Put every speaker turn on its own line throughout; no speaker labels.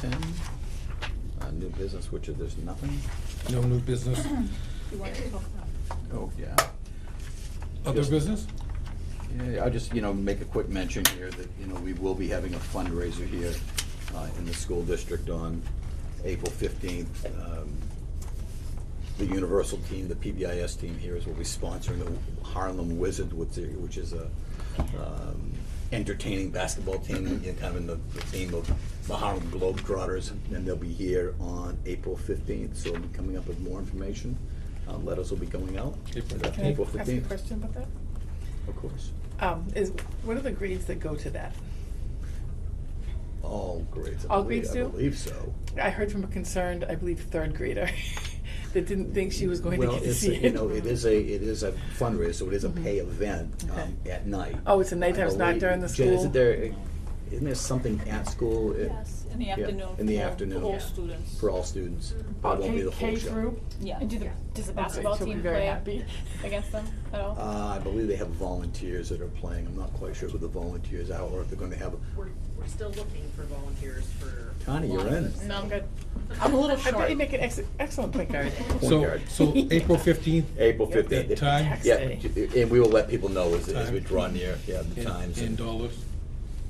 ten, uh, new business, which is, there's nothing.
No new business,
You want to talk about?
Oh, yeah.
other
Yes.
business?
Yeah, I'll just, you know, make a quick mention here that, you know, we will be having a fundraiser here uh, in the school district on April fifteenth. Um, The Universal team, the PBIS team here is will be sponsoring the Harlem Wizards, which is- which is a um, entertaining basketball team, you know, kind of in the the theme of the Harlem Globetrotters. And they'll be here on April fifteenth, so we'll be coming up with more information. Uh, Letters will be going out.
April
Uh,
Can I
April
ask a
fifteenth,
question about that?
of course.
Um, is, what are the grades that go to that?
All grades. I
All
believe-
grades do?
I believe so.
I heard from a concerned, I believe, third grader that didn't think she was going to
Well,
get to
it's,
see
a- you
it. Mm-hmm.
know, it is a, it is a fundraiser, so it is a pay event um,
Okay.
at night.
Oh, it's a nighttime, it's
I
not
believe-
during the
Jen,
school?
isn't there, isn't there something at school? uh,
Yes, in the
yeah,
afternoon.
In the
for all-
afternoon.
For all students.
For all students, but it won't be
Mm-hmm. K,
the
K
whole
through?
show.
Yeah. And do the, does the basketball
she'll be
team
very
play
happy.
against them at all?
Uh, I believe they have volunteers that are playing, I'm not quite sure who the volunteers are, or if they're gonna have,
We're, we're still looking for volunteers for.
Connie, you're in.
No, I'm good. I'm a little
I bet
short.
you make an ex- excellent point guard.
Point
So,
guard.
so April fifteenth,
April
that
fifteenth.
time,
Tax
Yeah,
day.
and we will let people know as, as we
Time.
draw near, yeah, the
and
times
and
and,
dollars,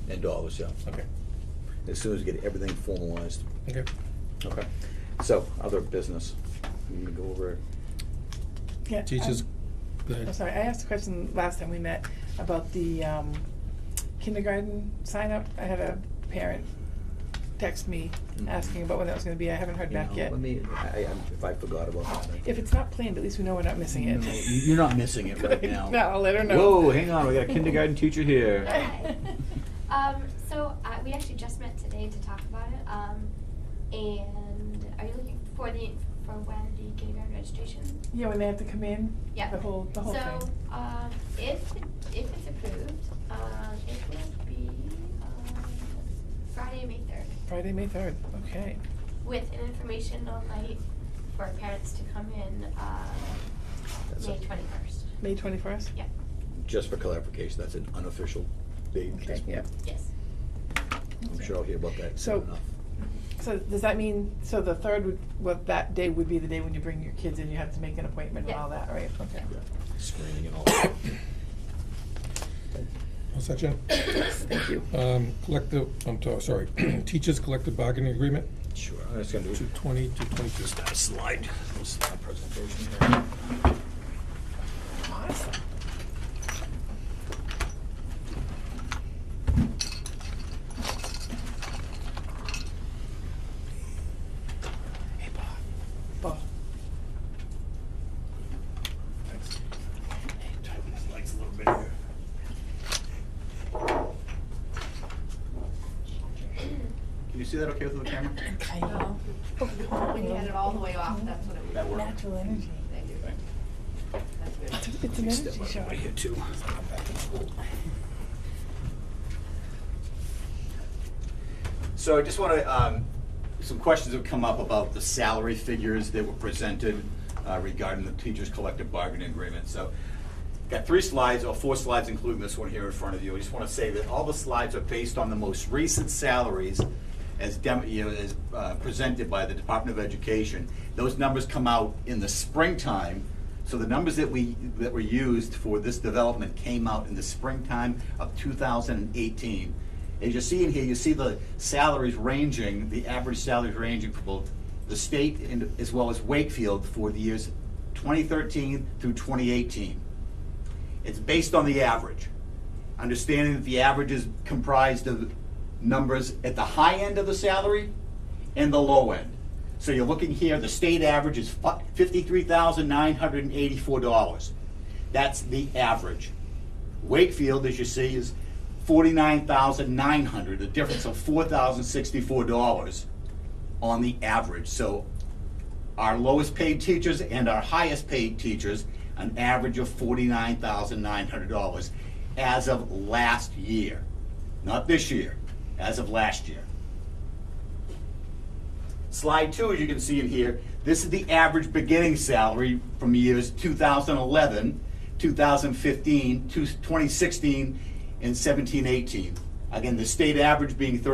and dollars, yeah.
okay,
As soon as we get everything formalized.
okay.
Okay. So, other business, we can go over,
Yeah,
Teachers,
I'm-
go ahead.
I'm sorry, I asked a question last time we met about the um, kindergarten sign up. I had a parent text me
Mhm.
asking about when that was gonna be. I haven't heard
you know,
back yet.
let me, I, I, if I forgot about that. I-
If it's not planned, at least we know we're not missing
No,
it.
you- You're not missing it right now.
No, I'll let her know.
Whoa, hang on, we got a kindergarten teacher here.
Hi. Um, so uh, we actually just met today to talk about it. Um, and are you looking for the for when the kindergarten registration?
Yeah, when they have to come in?
Yeah.
The whole, the whole
so
thing.
um, if it- if it's approved, um, it will be um, Friday, May third,
Friday, May third, okay.
with an informational night for parents to come in uh,
That's
May
it.
twenty first.
May twenty-first?
Yeah.
Just for clarification, that's an unofficial date at this
Okay, yeah.
point.
Yes.
I'm sure I'll hear about that
So-
soon enough.
So does that mean, so the third would, what, that day would be the day when you bring your kids in, you have to make an appointment and
Yeah.
all that, right? Okay.
Yeah, Screening and all that.
What's that, Jen?
Thank you.
Um, collective, I'm to- sorry, teachers collective bargaining agreement,
Sure, I'm just gonna do.
two twenty to twenty-two.
Just got a slide, little slide presentation here.
Awesome. Hey, Bob. Bob.
Can you see that okay with the camera?
When you had it all the way off, that's what it was.
That work?
Natural energy.
Thank you. That's good.
It's an
Step
energy
out
shot.
of here too. So I just want to, some questions have come up about the salary figures that were presented uh, regarding the teachers' collective bargaining agreement. So got three slides, or four slides, including this one here in front of you. I just want to say that all the slides are based on the most recent salaries as dem, you know, as uh, presented by the Department of Education. Those numbers come out in the springtime, so the numbers that we, that were used for this development came out in the springtime of two thousand and eighteen. As you see in here, you see the salaries ranging, the average salaries ranging for both the state and, as well as Wakefield for the years twenty thirteen through twenty eighteen. It's based on the average, understanding that the average is comprised of numbers at the high end of the salary and the low end. So you're looking here, the state average is fifty-three thousand nine hundred and eighty-four dollars. That's the average. Wakefield, as you see, is forty-nine thousand nine hundred, a difference of four thousand sixty-four dollars on the average. So our lowest paid teachers and our highest paid teachers, an average of forty-nine thousand nine hundred dollars as of last year. Not this year, as of last year. Slide two, as you can see in here, this is the average beginning salary from years 2011, 2015, 2016, and 17, 18. Again, the state average being